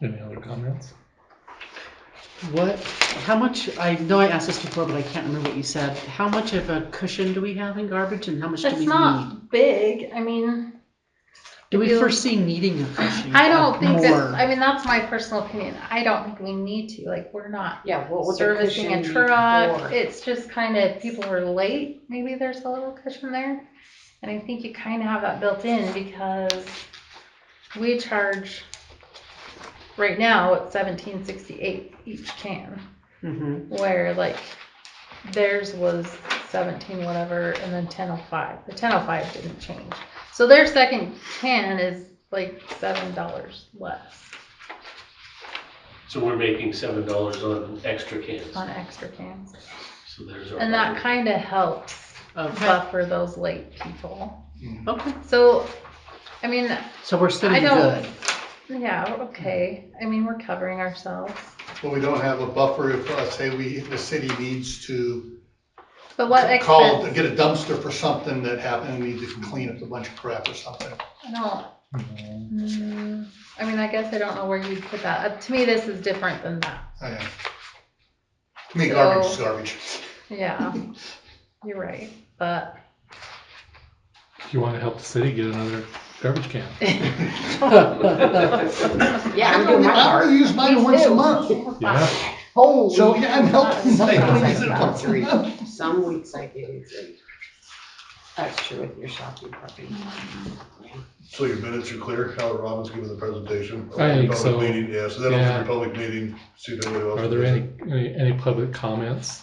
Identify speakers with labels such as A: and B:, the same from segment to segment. A: Any other comments?
B: What, how much, I know I asked this before, but I can't remember what you said. How much of a cushion do we have in garbage and how much do we
C: It's
B: need?
C: not big. I mean,
B: Do we
C: you-
B: foresee needing a cushion?
C: I don't
B: of
C: think
B: more?
C: that, I mean, that's my personal opinion. I don't think we need to, like, we're not
D: Yeah, what would the
C: servicing
D: cushion
C: a
D: be
C: truck.
D: for?
C: It's just kind of, people were late, maybe there's a little cushion there. And I think you kind of have that built in because we charge, right now, it's seventeen sixty-eight each can.
B: Mhm.
C: where like theirs was 17 whatever and then 1005 the 1005 didn't change so their second can is like seven dollars less
E: So we're making seven dollars on extra cans.
C: on extra cans
E: So there's our.
C: and that kind of helps
B: Okay,
C: buffer those late people
B: okay.
C: so i mean
B: So we're sitting
C: I don't-
B: good.
C: yeah we're okay i mean we're covering ourselves
F: Well, we don't have a buffer if, uh, say, we, the city needs to
C: but what
F: call,
C: expense
F: get a dumpster for something that happened, and need to clean up a bunch of crap or something.
C: i don't
A: No.
C: mm, i mean i guess i don't know where you'd put that up to me this is different than that
F: I am. Oh, I mean, garbage is
C: So-
F: garbage.
C: Yeah, you're right, but
A: If you want to help the city get another garbage can.
D: Yeah,
F: I'm
D: I'm
F: gonna,
D: doing my
F: I'm
D: part.
F: gonna use mine
D: Me
F: once a
D: too.
F: month.
A: Yeah,
D: Holy.
F: So, yeah, I'm helping.
D: Sometimes
F: Mike
D: I
F: use it
D: get
F: once a
D: three.
F: month.
D: Some weeks I get three. That's true with your shopping puppy.
G: So your minutes are clear, Howard Robbins giving the presentation?
A: I think
G: Public
A: so.
G: meeting, Yeah, so that'll be
A: Yeah.
G: a public meeting, see if anybody else.
A: Are there any, any, any public comments?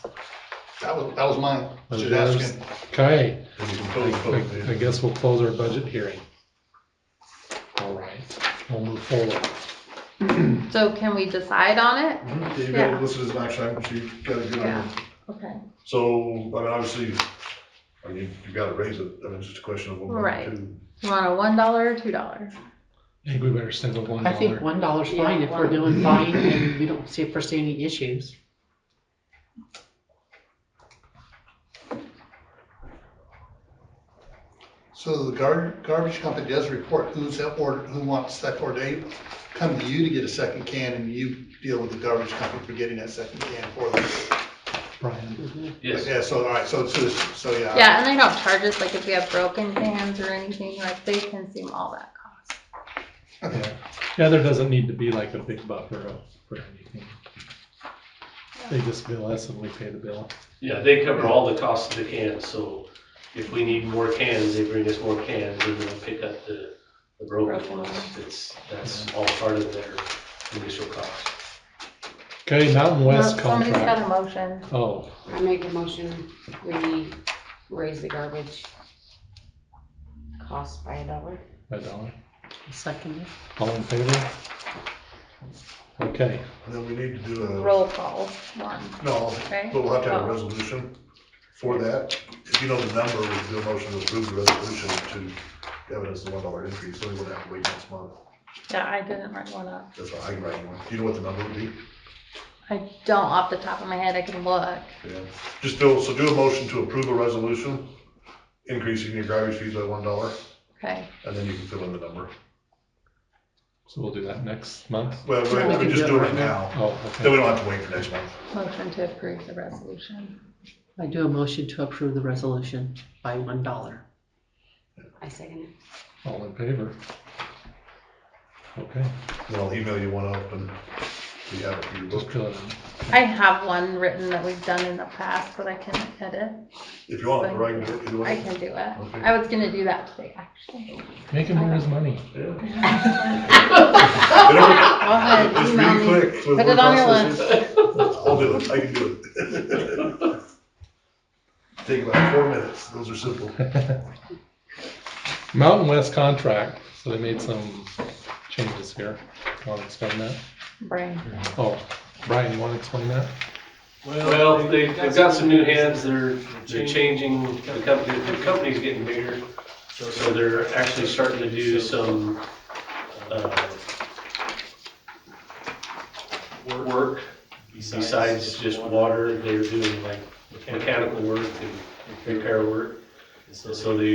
F: That was, that was mine.
A: Was
F: Just
A: yours?
F: asking.
A: Okay, I,
G: Public, public
A: I- I
G: meeting.
A: guess we'll close our budget hearing. All right, we'll move forward.
C: so can we decide on it?
G: Okay, Mm-hmm. you
C: Yeah.
G: got, this is an action item, so you gotta get on.
C: Yeah.
G: it.
C: Okay.
G: So, I mean, obviously, I mean, you- you gotta raise it, I mean, it's just a question of what. we
C: Right.
G: do.
C: You want a one dollar or two dollar?
A: I think we better send a one
B: I think
A: dollar.
B: one dollar's fine if we're
D: Yeah,
B: doing fine and we don't see, foresee any issues.
F: So the gar- garbage company does report who's at order, who wants that order. They come to you to get a second can, and you deal with the garbage company for getting that second can for them.
A: Brian,
E: Yes,
F: Yeah, so, all right, so it's just, so,
A: Uh,
F: yeah.
C: Yeah, and they don't charge us, like if we have broken cans or anything, like they consume all that cost.
A: yeah, there doesn't need to be like a big buffer of- for anything. They just bill us and we pay the bill.
E: yeah, they cover all the costs of the cans, so if we need more cans, they bring us more cans, and then pick up the, the broken
C: Broken
E: ones. It's, that's all part of their initial cost.
A: Okay, Mountain West
C: Somebody's got
A: contract.
C: a motion.
A: Oh,
D: I make a motion, we raise the garbage cost by a dollar.
A: a dollar.
B: Second,
A: All in favor? Okay,
G: And then we need to do a,
C: Roll call one,
G: no,
C: okay?
G: but we'll have to have
C: Oh.
G: a resolution for that. If you know the number, we'll do a motion to approve the resolution to have it as a one dollar increase, so we wouldn't have to wait next month.
C: Yeah, I didn't write one up.
G: That's what I can write one. Do you know what the number would be?
C: I don't off the top of my head, I can look.
G: Yeah, just do, so do a motion to approve a resolution increasing your garbage fees by one dollar,
C: Okay,
G: and then you can fill in the number.
A: so we'll do that next month.
G: Well,
B: we
G: we
B: can
G: can
B: do
G: just
B: it
G: do it
B: right
G: now,
A: Oh,
G: then
A: okay.
G: we don't have to wait for next month.
C: motion to approve the resolution.
B: I do a motion to approve the resolution by one dollar.
D: I second it.
A: All in favor? Okay,
G: Then I'll email you one up and we have it for your
A: just
G: book.
A: fill it in.
C: I have one written that we've done in the past, but I can edit.
G: If you want, or I can do it either
C: I
G: way.
C: can do it.
G: Okay.
C: I was gonna do that today, actually.
A: Make him earn his money.
G: Yeah. You
C: Go
G: know,
C: ahead,
G: It's
C: email
G: pretty
C: me.
G: quick. with
C: Put
G: word
C: it on your
G: processors.
C: list.
G: I'll do it, I can do it. Take about four minutes, those are simple.
A: Mountain West contract, so they made some changes here. Want to explain that?
C: Brain.
A: Oh, Brian, you want to explain that?
E: Well, they, they've got some new hands, they're, they're changing, the company, the company's getting bigger. So they're actually starting to do some, uh, work besides just water, they're doing like mechanical work and repair work. So they